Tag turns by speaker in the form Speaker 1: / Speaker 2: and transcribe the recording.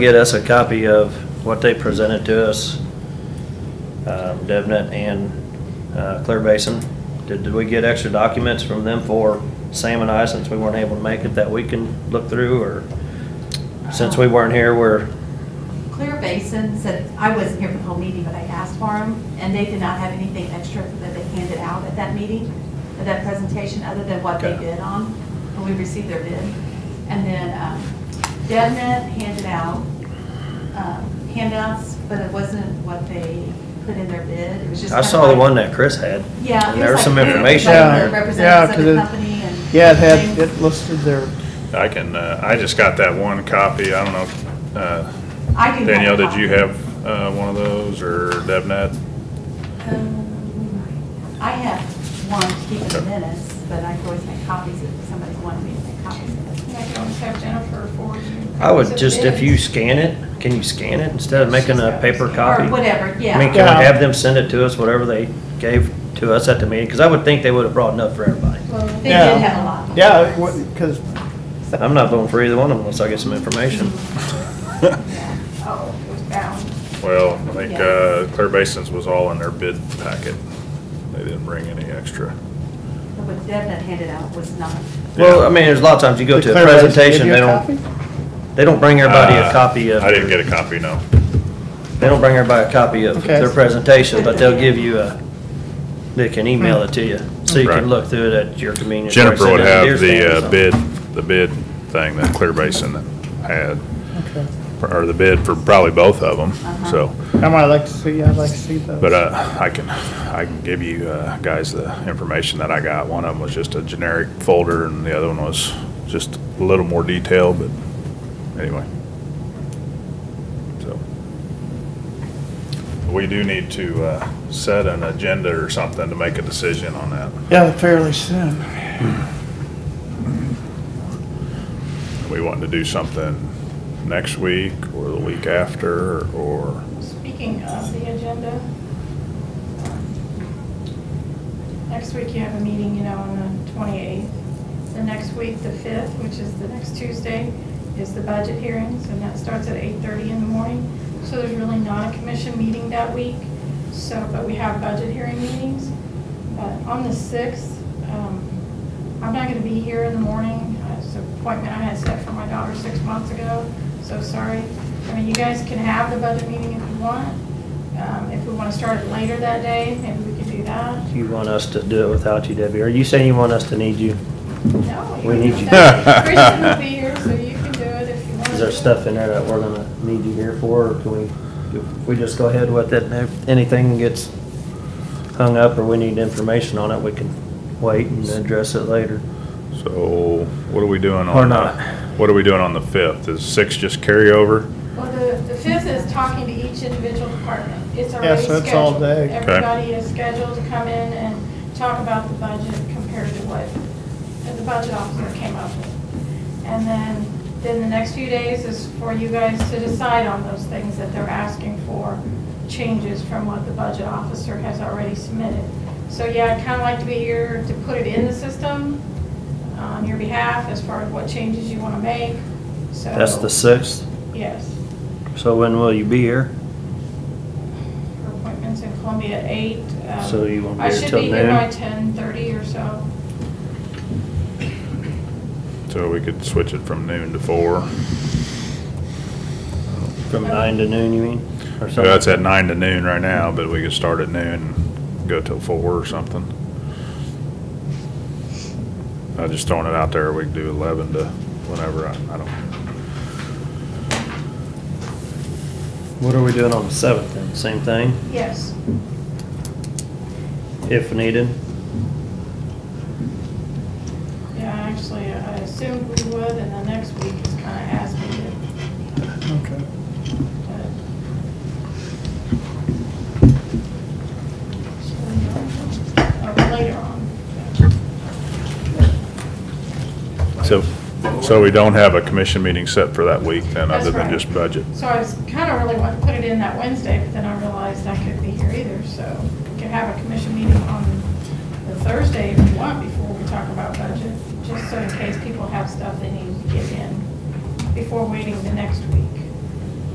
Speaker 1: get us a copy of what they presented to us, um, DevNet and uh, Clear Basin. Did, did we get extra documents from them for Sam and I, since we weren't able to make it, that we can look through, or since we weren't here, we're,
Speaker 2: Clear Basin said, I wasn't here for the whole meeting, but I asked for them, and they did not have anything extra that they handed out at that meeting, at that presentation, other than what they
Speaker 1: Okay.
Speaker 2: bid on, and we received their bid. And then um, DevNet handed out um, handouts, but it wasn't what they put in their bid, it was just.
Speaker 1: I
Speaker 2: kind of
Speaker 1: saw the
Speaker 2: like-
Speaker 1: one that Chris had.
Speaker 2: Yeah. it
Speaker 1: And there was
Speaker 2: like-
Speaker 1: some information in
Speaker 2: like
Speaker 1: there.
Speaker 2: Representatives of the
Speaker 3: Yeah, 'cause it-
Speaker 2: company and.
Speaker 3: Yeah, it had,
Speaker 2: things.
Speaker 3: it listed their,
Speaker 4: I can, uh, I just got that one copy, I don't know, uh,
Speaker 2: I do have a
Speaker 4: Danielle, did you
Speaker 2: copy.
Speaker 4: have, uh, one of those, or DevNet?
Speaker 2: Um, I have one to keep in the
Speaker 4: Okay.
Speaker 2: minutes, but I can always make copies if somebody wanted me to make copies. of it.
Speaker 5: And I can always have Jennifer forward you.
Speaker 1: I would
Speaker 5: copies of
Speaker 1: just, if
Speaker 5: bids.
Speaker 1: you scan it, can you scan it instead of making a paper copy?
Speaker 2: Or whatever, yeah.
Speaker 1: I mean, can we
Speaker 3: Yeah.
Speaker 1: have them send it to us, whatever they gave to us at the meeting? Because I would think they would have brought enough for everybody.
Speaker 2: They
Speaker 5: Well,
Speaker 3: Yeah.
Speaker 2: did have a lot.
Speaker 3: yeah, because,
Speaker 1: I'm not voting for either one of them unless I get some information.
Speaker 5: yeah. Oh, it was bound.
Speaker 4: Well, I think,
Speaker 2: Yeah.
Speaker 4: uh, Clear Basin's was all in their bid packet, they didn't bring any extra.
Speaker 2: But What Devin handed out was not.
Speaker 1: Well, I mean, there's a lot of times you go to a presentation, they don't, they don't bring everybody a
Speaker 4: Uh,
Speaker 1: copy of,
Speaker 4: I didn't
Speaker 1: they
Speaker 4: get a copy, no.
Speaker 1: don't bring everybody a copy of
Speaker 3: Okay.
Speaker 1: their presentation, but they'll give you a, they can email it to you, so you
Speaker 4: Right.
Speaker 1: can look through it at your convenience. or
Speaker 4: Jennifer
Speaker 1: send
Speaker 4: would
Speaker 1: it to Deer
Speaker 4: have
Speaker 1: Stand or
Speaker 4: the uh,
Speaker 1: something.
Speaker 4: bid, the bid thing that Clear Basin had, or the bid for probably both of them,
Speaker 2: Uh-huh.
Speaker 4: so.
Speaker 3: I might like to see, I'd like to see those.
Speaker 4: But uh, I can, I can give you uh, guys the information that I got. One of them was just a generic folder and the other one was just a little more detailed, but anyway. So. We do need to uh, set an agenda or something to make a decision on that.
Speaker 3: Yeah, fairly soon.
Speaker 4: We want to do something next week or the week after or,
Speaker 5: Speaking of the agenda, um, next week you have a meeting, you know, on the 28th. The next week, the 5th, which is the next Tuesday, is the budget hearings, and that starts at 8:30 in the morning. So there's really not a commission meeting that week, so, but we have budget hearing meetings. But on the 6th, um, I'm not going to be here in the morning. Uh, It's an appointment I had set for my daughter six months ago, so sorry. I mean, you guys can have the budget meeting if you want. Um, If we want to start it later that day, maybe we could do that.
Speaker 1: You want us to do it without you, Debbie? Are you saying you want us to need you?
Speaker 5: No, you
Speaker 1: We
Speaker 5: can
Speaker 1: need
Speaker 5: do
Speaker 1: you.
Speaker 5: that. Christian will be here, so you can do it if you want.
Speaker 1: Is there stuff in there that we're gonna need you here for, or can we, if we just go ahead with it, and if anything gets hung up or we need information on it, we can wait and address it later.
Speaker 4: so what are we doing on?
Speaker 1: Or
Speaker 4: the-
Speaker 1: not.
Speaker 4: What are we doing on the 5th? Is 6 just carryover?
Speaker 5: Well, the, the fifth is talking to each individual department. It's
Speaker 3: Yeah,
Speaker 5: already
Speaker 3: so
Speaker 5: scheduled.
Speaker 3: it's all day. Okay.
Speaker 5: Everybody is scheduled to come in and talk about the budget compared to what the budget officer came up with. And then, then the next few days is for you guys to decide on those things that they're asking for, changes from what the budget officer has already submitted. So yeah, I'd kind of like to be here to put it in the system uh, on your behalf as far as what changes you want to make, so.
Speaker 1: That's the sixth,
Speaker 5: Yes.
Speaker 1: so when will you be here?
Speaker 5: Her appointment's in Columbia at eight. um,
Speaker 1: So you won't be
Speaker 5: I
Speaker 1: here
Speaker 5: should
Speaker 1: till
Speaker 5: be here
Speaker 1: noon?
Speaker 5: by ten thirty or so.
Speaker 4: So we could switch it from noon to four.
Speaker 1: From nine to noon, you mean? Or
Speaker 4: So
Speaker 1: something?
Speaker 4: that's at nine to noon right now, but we could start at noon, and go till four or something. I just throwing it out there, we could do eleven to whenever, I, I don't,
Speaker 1: What are we doing on the seventh then? Same thing,
Speaker 5: Yes.
Speaker 1: if needed?
Speaker 5: Yeah, actually, uh, I assumed we would, and the next week is kind of as needed.
Speaker 3: Okay.
Speaker 5: but- Oh, Later on.
Speaker 4: so, so we don't have a commission meeting set for that week then,
Speaker 5: That's
Speaker 4: other than
Speaker 5: right.
Speaker 4: just budget.
Speaker 5: So I was kind of really wanting to put it in that Wednesday, but then I realized I couldn't be here either, so we could have a commission meeting on the Thursday if you want before we talk about budget, just so in case people have stuff they need to get in before waiting the next week.